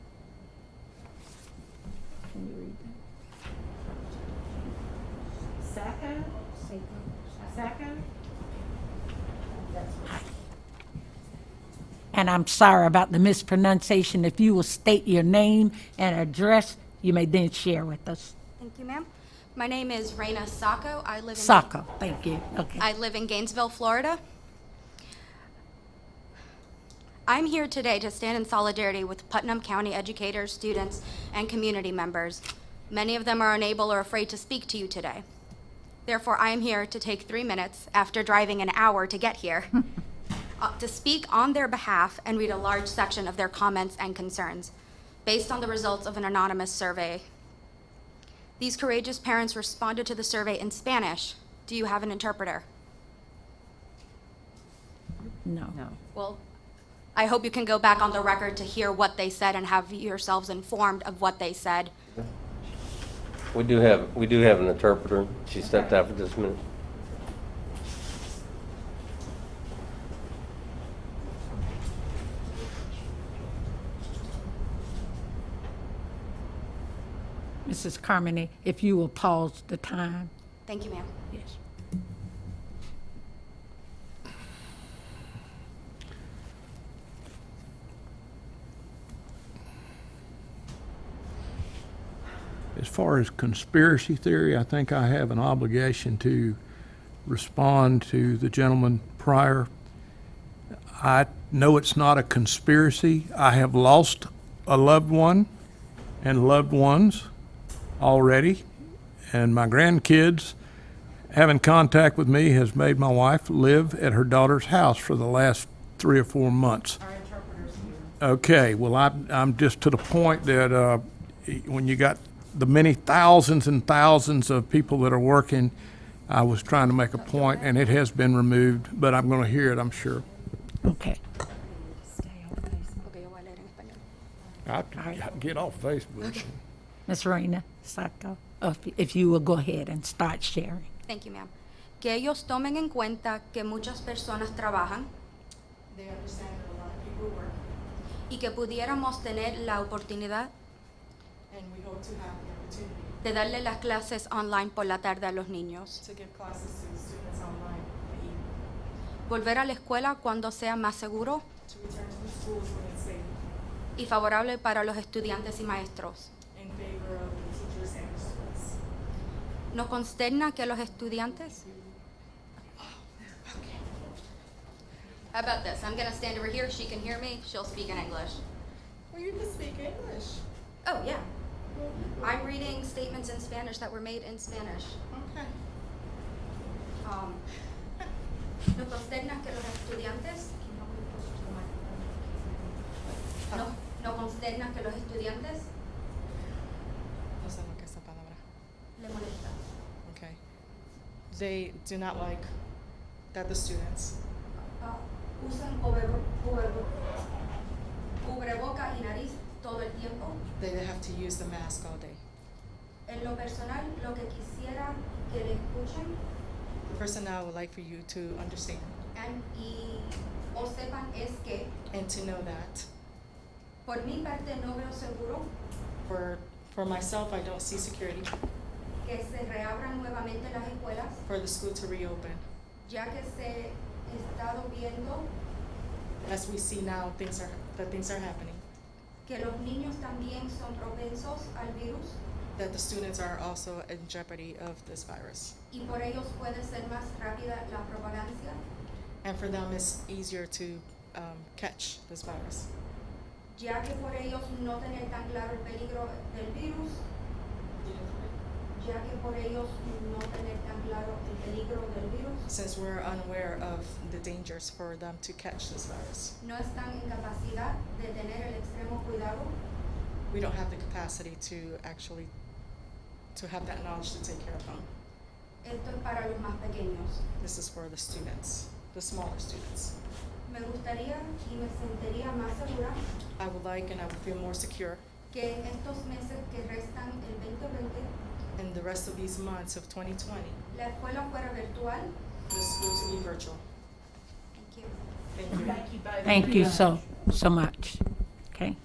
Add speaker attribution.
Speaker 1: second.
Speaker 2: Second?
Speaker 3: And I'm sorry about the mispronunciation. If you will state your name and address, you may then share with us.
Speaker 1: Thank you, ma'am. My name is Raina Sacco. I live in.
Speaker 3: Saka, thank you. Okay.
Speaker 1: I live in Gainesville, Florida. I'm here today to stand in solidarity with Putnam County educators, students, and community members. Many of them are unable or afraid to speak to you today. Therefore, I am here to take three minutes, after driving an hour to get here, uh, to speak on their behalf and read a large section of their comments and concerns, based on the results of an anonymous survey these courageous parents responded to the survey in Spanish. Do you have an interpreter?
Speaker 3: No.
Speaker 2: No.
Speaker 1: Well, I hope you can go back on the record to hear what they said and have yourselves informed of what they said.
Speaker 4: We do have, we do have an interpreter. She stepped out for just a minute.
Speaker 3: Mrs. Carmody, if you will pause the time.
Speaker 1: Thank you, ma'am.
Speaker 3: Yes.
Speaker 5: As far as conspiracy theory, I think I have an obligation to respond to the gentleman prior. I know it's not a conspiracy. I have lost a loved one and loved ones already, and my grandkids having contact with me has made my wife live at her daughter's house for the last three or four months. Okay, well, I'm, I'm just to the point that, uh, when you got the many thousands and thousands of people that are working, I was trying to make a point, and it has been removed, but I'm gonna hear it, I'm sure.
Speaker 3: Okay.
Speaker 1: Okay, yo voy a leer en español.
Speaker 5: I, get off Facebook.
Speaker 3: Ms. Raina Saka, if if you will go ahead and start sharing.
Speaker 1: Thank you, ma'am. Que ellos tomen en cuenta que muchas personas trabajan
Speaker 2: They understand that a lot of people work,
Speaker 1: y que pudiéramos tener la oportunidad
Speaker 2: and we hope to have the opportunity
Speaker 1: de darle las clases online por la tarde a los niños.
Speaker 2: to give classes to the students online in the evening,
Speaker 1: Volver a la escuela cuando sea más seguro
Speaker 2: to return to the schools when it's safe,
Speaker 1: y favorable para los estudiantes y maestros.
Speaker 2: in favor of the teachers and the students.
Speaker 1: Nos consterna que los estudiantes. How about this? I'm gonna stand over here. She can hear me. She'll speak in English.
Speaker 2: Well, you can speak English.
Speaker 1: Oh, yeah. I'm reading statements in Spanish that were made in Spanish.
Speaker 2: Okay.
Speaker 1: Um, nos consterna que los estudiantes. No, no consterna que los estudiantes
Speaker 2: No sé lo que es esa palabra.
Speaker 1: le molesta.
Speaker 2: Okay. They do not like that the students
Speaker 1: Ah, usan cubrebo- cubrebo- cubrebocas y nariz todo el tiempo.
Speaker 2: they have to use the mask all day.
Speaker 1: En lo personal, lo que quisiera que le escuchen
Speaker 2: The person I would like for you to understand
Speaker 1: and- y o sepan es que
Speaker 2: and to know that
Speaker 1: por mi parte no veo seguro
Speaker 2: for for myself, I don't see security
Speaker 1: que se reabran nuevamente las escuelas,
Speaker 2: for the school to reopen.
Speaker 1: ya que se ha estado viendo
Speaker 2: As we see now, things are that things are happening.
Speaker 1: que los niños también son propensos al virus
Speaker 2: That the students are also in jeopardy of this virus,
Speaker 1: y por ellos puede ser más rápida la propagancia,
Speaker 2: and for them it's easier to um, catch this virus
Speaker 1: ya que por ellos no tener tan claro el peligro del virus, ya que por ellos no tener tan claro el peligro del virus.
Speaker 2: since we're unaware of the dangers for them to catch this virus.
Speaker 1: no están en capacidad de tener el extremo cuidado
Speaker 2: We don't have the capacity to actually to have that knowledge to take care of them.
Speaker 1: Esto es para los más pequeños.
Speaker 2: This is for the students, the smaller students.
Speaker 1: Me gustaría y me sentiría más segura
Speaker 2: I would like and I would feel more secure
Speaker 1: que en estos meses que restan el 2020
Speaker 2: in the rest of these months of 2020
Speaker 1: la escuela fuera virtual.
Speaker 2: for the school to be virtual.
Speaker 1: Thank you.
Speaker 2: Thank you.
Speaker 3: Thank you so, so much. Okay.